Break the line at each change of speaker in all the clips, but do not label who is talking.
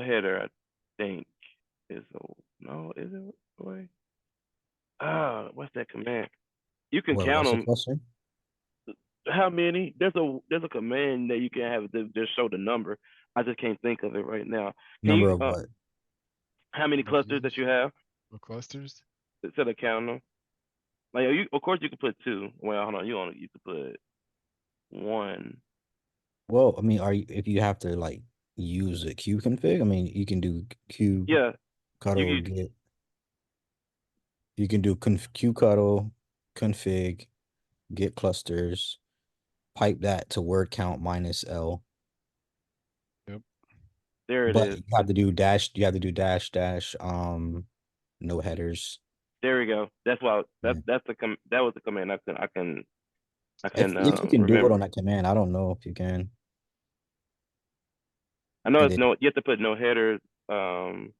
header, I think, is a, no, is it way? Ah, what's that command? You can
Well,
count
that's a
them.
question.
How many? There's a there's a command that you can have to just show the number. I just can't think of it right now. Can
Number
you,
of
uh,
what?
How many clusters that you have
Or clusters?
instead of counting them? Like oh, you, of course, you could put two. Well, hold on, you only you could put one.
Well, I mean, are you if you have to like use a Q config? I mean, you can do Q
Yeah,
cuddle
you-
get. You can do conf- Q cuddle config get clusters, pipe that to word count minus L.
there it is.
But you have to do dash. You have to do dash dash. Um, no headers.
There we go. That's why that
Yeah.
that's the com- that was the command I can I can I
If,
can,
if
um,
you can do it
remember.
on that command, I don't know if you can.
I know
and
it's
then-
no you have to put no headers um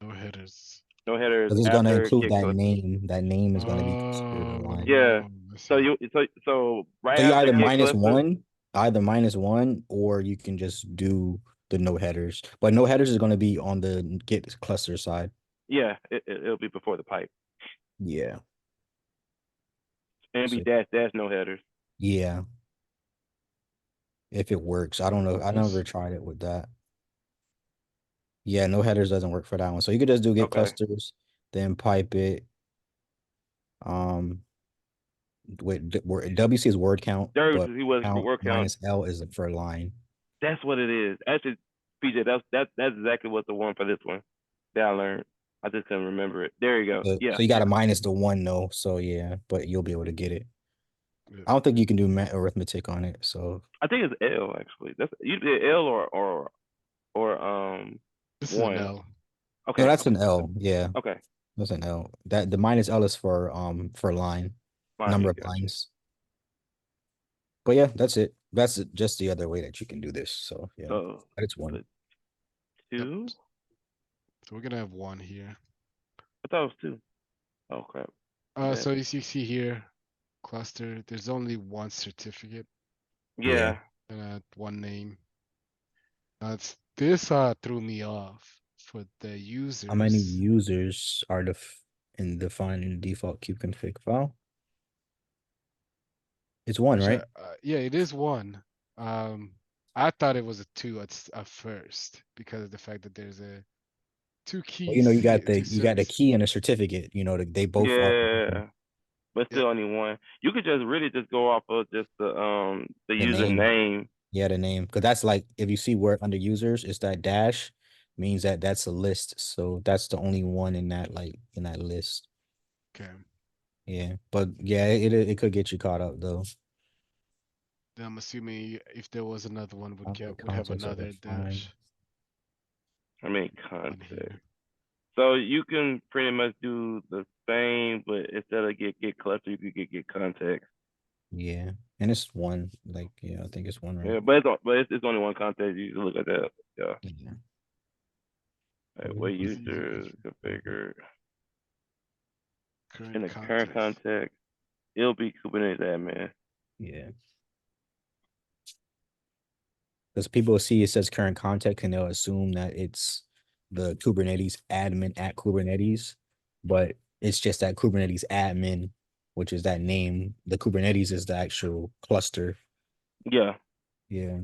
No headers.
no headers
Because it's gonna
after
include
get
that
close.
name. That name is gonna be considered a line.
Oh,
Yeah,
I
So
see.
you so so right
So you
after
either
get
minus
cluster-
one, either minus one, or you can just do the no headers. But no headers is gonna be on the n- git cluster side.
Yeah, it, it it'll be before the pipe.
Yeah.
And it'll be
So-
dash dash no headers.
Yeah. If it works, I don't know. I
Yes.
never tried it with that. Yeah, no headers doesn't work for that one. So you could just do git
Okay.
clusters, then pipe it. Um, with the word WC is word count,
There
but
he was
count
working on
minus L is for line.
that's what it is. Actually PJ that's that that's exactly what the one for this one that I learned. I just couldn't remember it. There you go.
So,
Uh, Yeah.
so you got to minus the one though. So yeah, but you'll be able to get it.
Yeah.
I don't think you can do math arithmetic on it. So
I think it's L actually. That's you did L or or or um
This is an
one.
L.
okay.
no, that's an L. Yeah,
Okay.
that's an L. That the minus L is for um for line
fine,
number of
yeah.
lines. But yeah, that's it. That's it- just the other way that you can do this. So yeah,
So
but it's one.
but- two?
So we're gonna have one here.
I thought it was two. Oh crap.
Uh,
Yeah.
so you see, see here, cluster. There's only one certificate
Yeah.
Yeah.
and uh, one name. That's this uh threw me off for the users.
How many users are def- in defined in default cube config file? It's one,
Actually,
right?
Uh, yeah, it is one. Um, I thought it was a two at, s- at first because of the fact that there's a two keys.
Well, you know, you got
here,
the
two
you got the
certs.
key and a certificate. You know, they both. are-
Yeah. But still only one. You could just really just go off of just the um the
The name.
username.
Yeah, the name, because that's like if you see where under users, it's that dash means that that's a list. So that's the only one in that like in that list.
Okay,
Yeah, but yeah, it it it could get you caught up though.
then I'm assuming if there was another one, would
Conflict
get would have
context of
another
defined.
dash
I mean
on
Mm-hmm.
context.
here.
So you can pretty much do the same, but instead of get get cluster, you could get get context.
Yeah, and it's one like yeah, I think it's one
Yeah,
right.
but it's on- but it's, it's only one context. You can look at that.
Yeah.
Like,
Mhm.
what
It's
easy to
users configure in the current
context.
context? It'll be Kubernetes admin.
Yeah. Because people see it says current context and they'll assume that it's the Kubernetes admin at Kubernetes, but it's just that Kubernetes admin, which is that name. The Kubernetes is the actual cluster.
Yeah.
Yeah.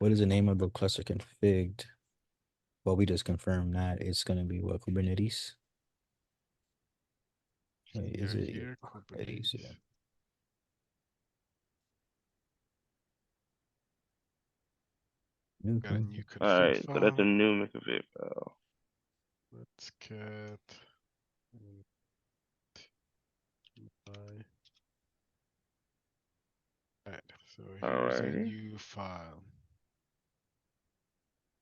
What is the name of the cluster configged? Well, we just confirmed that it's going to be what Kubernetes. Wait, is
Here,
it?
here,
it is, yeah.
Kubernetes. Got a
Mhm.
new config
All right. So that's a
file.
new config file.
Let's get. mm, my- Alright, so here's a
Alrighty.
new file.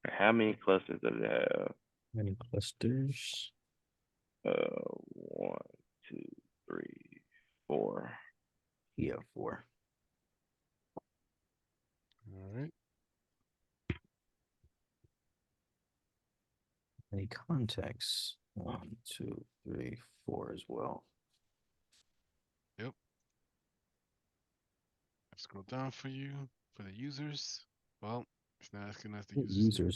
How many clusters does it have?
Many clusters.
Uh, one, two, three, four.
Yeah, four.
Alright,
Any contacts? One, two, three, four as well.
scroll down for you, for the users. Well, it's not asking us to
What
use.
Users